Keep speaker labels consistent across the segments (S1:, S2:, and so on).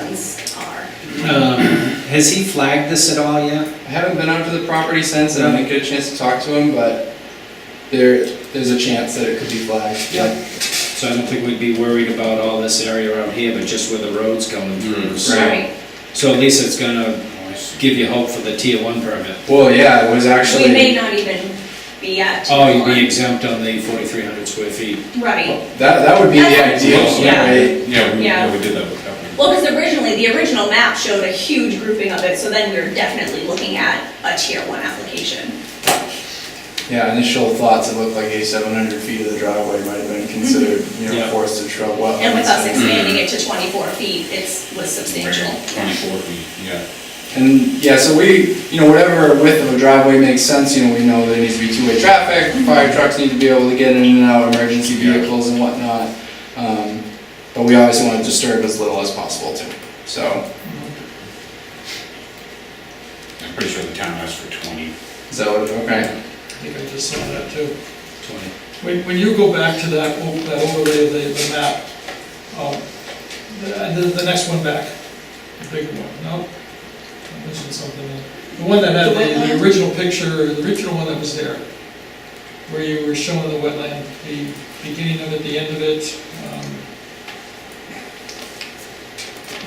S1: things are.
S2: Um, Has he flagged this at all yet?
S3: I haven't been onto the property since, and I didn't get a chance to talk to him, but there, there's a chance that it could be flagged.
S2: Yep. So I don't think we'd be worried about all this area around here, but just where the road's going through. So-
S3: Right.
S2: So at least it's gonna give you hope for the tier one permit.
S3: Well, yeah, it was
S1: We may
S3: actually,
S1: not even be at.
S2: Oh, you'd be exempt on the forty-three hundred square feet.
S1: Right,
S3: that, that would be the
S1: That's-
S3: ideal,
S1: yeah.
S3: right?
S4: Yeah, we,
S1: Yeah.
S4: yeah, we did that with Pepper.
S1: well, because originally, the original map showed a huge grouping of it, so then we were definitely looking at a tier one application.
S3: Yeah, initial thoughts, it looked like a seven hundred feet of the driveway might have been considered, you know,
S2: Yeah.
S3: forested shrub wetlands.
S1: Mm-hmm. And with us expanding it to twenty-four feet, it's, was substantial.
S4: Twenty-four feet, yeah.
S3: And, yeah, so we, you know, whatever width of a driveway makes sense, you know, we know there needs to be two-way traffic,
S1: Mm-hmm.
S3: fire trucks need to be able to get in and out, emergency
S4: Yeah.
S3: vehicles and whatnot. Um, But we always want to disturb as little as possible too, so,
S4: I'm pretty sure the town asked for twenty.
S3: is that what, okay?
S5: I think I just saw that too.
S2: Twenty.
S5: When, when you go back to that, o- that overlay of the, the map, um, the- and the, the next one back, the bigger one, no? I mentioned something, in- the one that had the, the original picture, the original one that was there, where you were showing the wetland, the beginning of it, the end of it, um. um,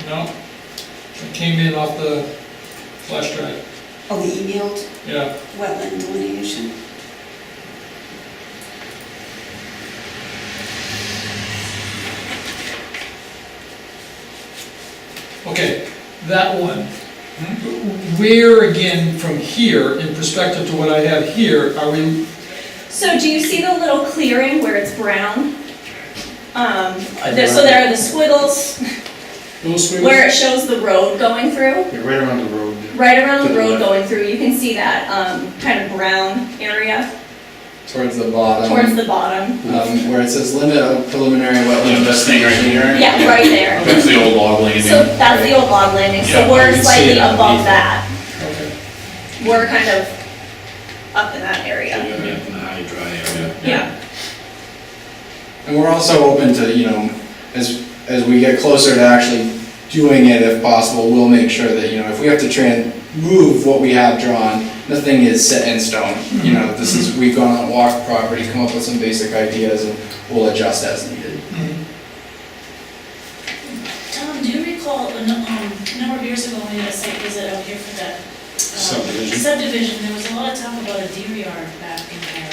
S5: No? It came in off the flash drive,
S6: Oh, the emailed
S5: yeah,
S6: wetland delineation?
S5: Okay, that one. Where again, from here, in perspective to what I have here, are we,
S1: So do you see the little clearing where it's brown? Um, there- so there are the squiggles
S2: Little squiggles?
S1: where it shows the road going through.
S3: Right around the road.
S1: Right around
S3: To
S1: the
S3: the
S1: road
S3: left.
S1: going through, you can see that um, kind of brown area
S3: Towards the bottom.
S1: towards the bottom.
S3: Um, where it says limit of preliminary wetland.
S4: this thing right here.
S1: Yeah, right there.
S4: That's the old log landing.
S1: So that's the old log landing, so
S4: Yeah,
S2: you
S1: we're
S2: can see
S1: slightly
S2: it
S1: above
S2: underneath
S1: that.
S5: okay,
S1: We're kind of up in that area.
S2: You're gonna be up in the high dry area.
S1: Yeah,
S3: And we're also open to, you know, as, as we get closer to actually doing it if possible, we'll make sure that, you know, if we have to tran, move what we have drawn, nothing is set in stone. You know, this is, we've gone on walk property, come up with some basic ideas and we'll adjust as needed.
S7: Tom, do you recall, a nu- um, a number of years ago, when we had a site visit out here for that? um,
S2: Subdivision.
S7: Subdivision, there was a lot of talk about a deer yard back in there.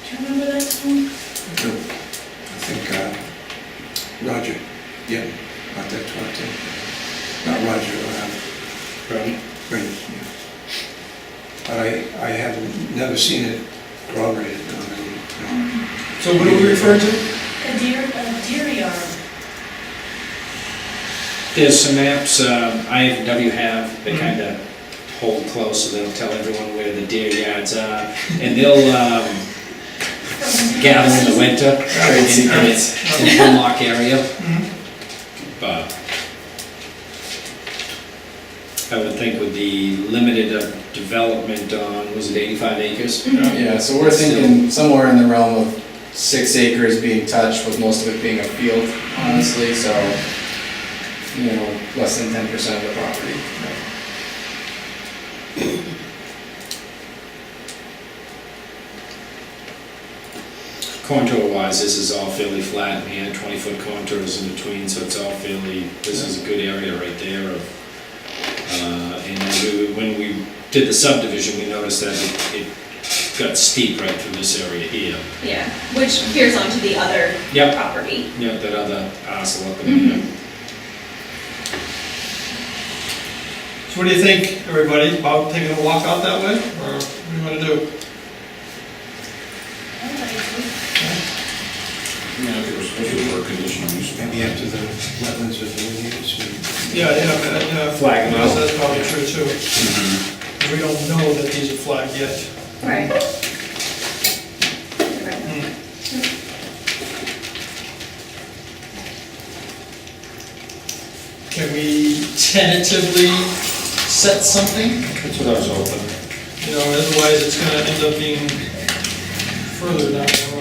S7: Do you remember that, Tom?
S8: I think uh, Roger, yeah, about that twenty. Not Roger, uh,
S2: Right?
S8: Brady, yeah. But I, I have never seen it corroborated on any, no.
S5: so what are we referring to?
S7: A deer, a deer yard.
S2: There's some apps, um, IFW have, they kind of hold close, so they'll tell everyone where the deer yards are, and they'll, um, gather in the winter.
S3: Trade
S2: in-
S3: secrets.
S2: In the Hemlock area. Mm-hmm. But I would think with the limited uh, development on, was it eighty-five acres?
S3: Yeah, so we're thinking somewhere in the realm of six acres being touched, with most of it being a field, honestly, so, you know, less than ten percent of the property.
S2: Contour wise, this is all fairly flat, and had twenty-foot contours in between, so it's all fairly, this is a good area right there of, uh, and we- when we did the subdivision, we noticed that it, it got steep right through this area here.
S1: yeah, which peers onto the other
S2: Yep, Mm-hmm.
S1: property.
S2: yep, that other parcel up in there.
S5: So what do you think, everybody, about taking a walk out that way, or what do you wanna do?
S4: Yeah, I think we're supposed to for a conditional use.
S8: Maybe after the wetlands are delineated, so we-
S5: Yeah, yeah, but, yeah.
S2: Flag them out. Mm-hmm.
S5: That's probably true too. We don't know that these are flagged yet.
S1: Right.
S5: Can we tentatively set something?
S2: That's what I was hoping.
S5: You know, otherwise it's gonna end up being further down the road.